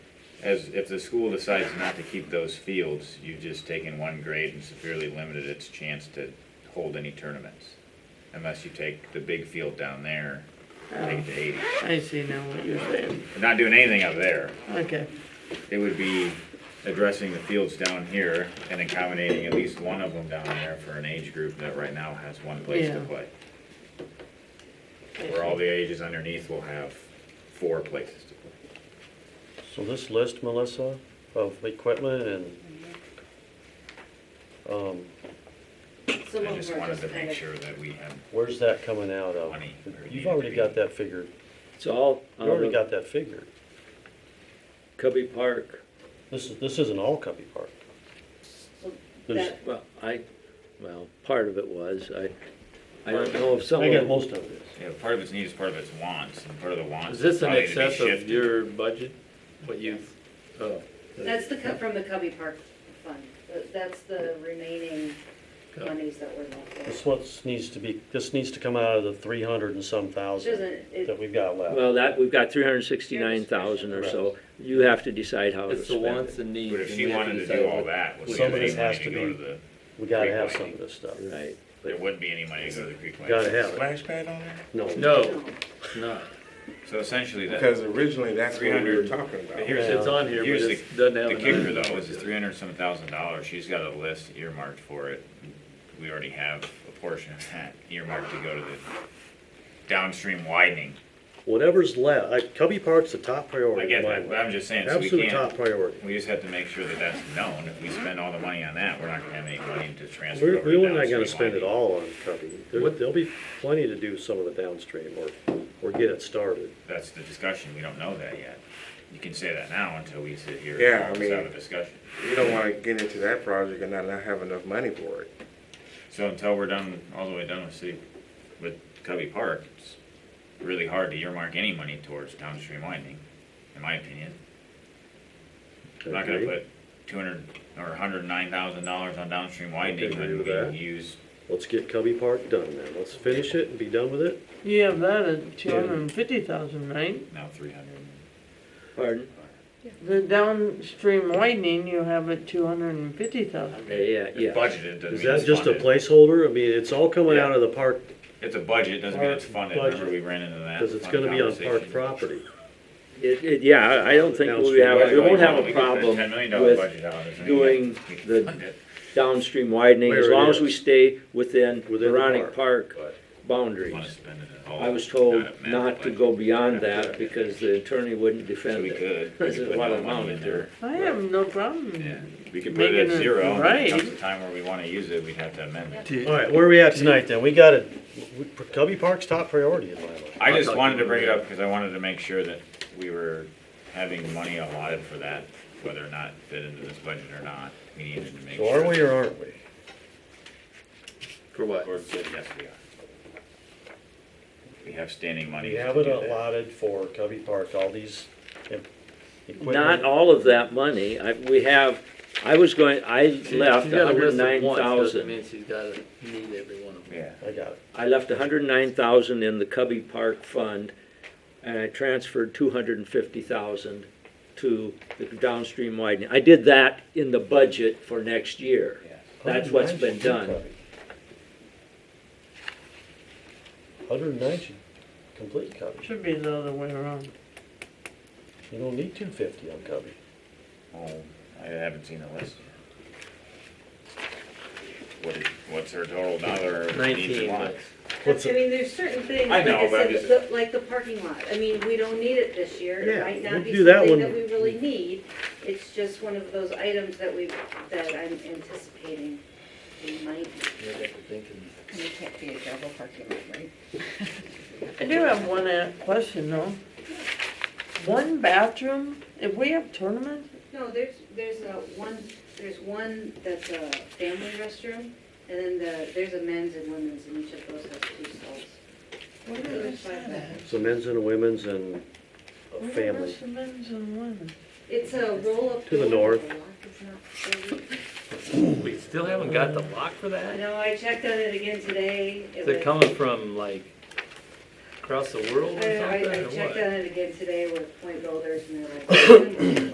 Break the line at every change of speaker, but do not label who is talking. As, if the school decides not to keep those fields, you've just taken one grade and severely limited its chance to hold any tournaments. Unless you take the big field down there, take it to eighty.
I see now what you're saying.
We're not doing anything up there.
Okay,
It would be addressing the fields down here and accommodating at least one of them down there for an age group that right now has one place to
Yeah.
play. Where all the ages underneath will have four places to play.
So this list, Melissa, of equipment and, um,
Some
I
of
just
them are
wanted to
kind
make
of-
sure that we have,
where's that coming out of?
Money, or needed
You've
to
already
be.
got that figured,
It's all,
you already
uh,
got that figured.
Cubby Park,
This is, this isn't all Cubby Park. There's,
That-
well, I, well, part of it was, I, I don't know if
I got
someone,
most of it.
you know, part of its needs, part of its wants, and part of the wants.
Is this in
probably to be
excess of
shifted.
your budget, what you've, oh,
That's the, cut from the Cubby Park Fund. Th- That's the remaining
Yeah.
monies that were left.
This what's needs to be, this needs to come out of the three hundred and some
Which
thousand
isn't,
that
it,
we've got left.
well, that, we've got three hundred and sixty-nine thousand or so. You have to decide how to
it's the
spend
wants
it.
and needs.
But if
and
she
we have
wanted to
decide
do all
what-
that, would we
Some
have
of
any
this has
money
to
to go
be-
to the,
We gotta have some of this stuff.
Right,
there wouldn't be any money to go to the Creek Lake.
Gotta have it.
Splash pad on there?
No.
No, no,
So essentially, that,
Because originally, that's what we were
300.
talking about.
but here's,
it's
the-
on here,
Here's
but it doesn't have.
the
an
kicker
item.
though, is it's three hundred and some thousand dollars, she's got a list earmarked for it. We already have a portion of that earmarked to go to the downstream widening.
Whatever's left, like Cubby Park's the top
I
priority
get
in my
that, but
mind.
I'm just saying, so we
Absolute top
can't,
priority.
we just have to make sure that that's known. If we spend all the money on that, we're not gonna have any money to transfer over
We're,
to
we're not
downstream
gonna spend it
widening.
all on Cubby. There,
What-
there'll be plenty to do some of the downstream or, or get it started.
That's the discussion, we don't know that yet. You can say that now until we sit here
Yeah, I
and
mean-
have a discussion.
You don't want to get into that project and not, not have enough money for it.
So until we're done, all the way done with city, with Covey Park, it's really hard to earmark any money towards downstream widening, in my opinion. I'm not gonna
Agree?
put two hundred or hundred and nine thousand dollars on downstream widening
agree
when
with that.
we use
Let's get Cubby Park done then. Let's finish it and be done with it.
you have that at two hundred and fifty thousand, right?
now three hundred.
pardon?
The downstream widening you have at two hundred and fifty thousand.
Yeah, yeah,
It's
yeah.
budgeted, doesn't mean
Is
it's
that just a
funded.
placeholder? I mean, it's all coming
Yeah.
out of the park,
It's a budget, doesn't mean it's
Park
funded, remember
budget.
we ran into that.
cause it's
fun
gonna be on park
conversation.
property.
It, it, yeah, I- I don't think we'll have, we won't have a
We could put
problem
$10 million
with
budget out, doesn't mean
doing
we can
the-
fund it.
downstream widening, as
Where it
long as
is.
we stay within
Within the
Veronic Park
But wanna
boundaries.
spend it at all.
I was told
Not a massive
not to
budget.
go beyond that because the attorney wouldn't defend
We
it.
could.
This
We
is
could
what
put
I'm
no money in
on there.
I have no problem.
Yeah, we could put it
Making
at
it
zero, and when it comes
right.
the time where we wanna use it, we'd have to amend it.
Do-
Alright, where are we at tonight then? We got it, Cubby Park's top priority in my mind.
I just wanted to bring it up, cause I wanted to make sure that we were having money allotted for that, whether or not fit into this budget or not, we needed to make
So
sure.
are we or aren't we?
For what?
Or good, yes, we are. We have standing money.
We
to
have it
do that.
allotted for Cubby Park, all these em-
Not
equipment.
all of that money. I, we have, I was going, I
She-
left
she's got a
hundred
list
and
of
nine
wants, Doesn't
thousand.
mean she's gotta need every one of them.
Yeah,
I got it.
I left hundred and nine thousand in the Cubby Park Fund and I transferred two hundred and fifty thousand to the downstream widening. I did that in the budget for next year.
yes.
That's what's been done.
Hundred and nine should complete Cubby.
Should be the other way around.
You don't need two fifty on Cubby.
Oh, I haven't seen the list yet. What is, what's her total dollar needs
Nineteen,
allotted?
but
What's
I mean, there's certain things,
I
like
know,
I
but I'm
said,
just-
the- like the parking lot. I mean, we don't need it this year. It
Yeah,
might
we'll
not be
do that
something
one.
that we really need. It's just one of those items that we, that I'm anticipating we might.
you have to think and-
You can't be a double parking lot, right?
I do have one uh, question though. One bathroom, if we have tournaments,
No, there's, there's a one, there's one that's a family restroom, and then the, there's a men's and women's, and each of those has two stalls. What
did I
So men's and women's and a
what are
family.
the men's and women's?
It's a roll-up.
To the
door.
north.
lock is not really-
We still haven't got the lock for
I
that?
know, I checked on it again today. It
Is it
was-
coming from like across the world
I,
or
I
something,
I
or
checked
what?
on it again today with point builders, and they're like,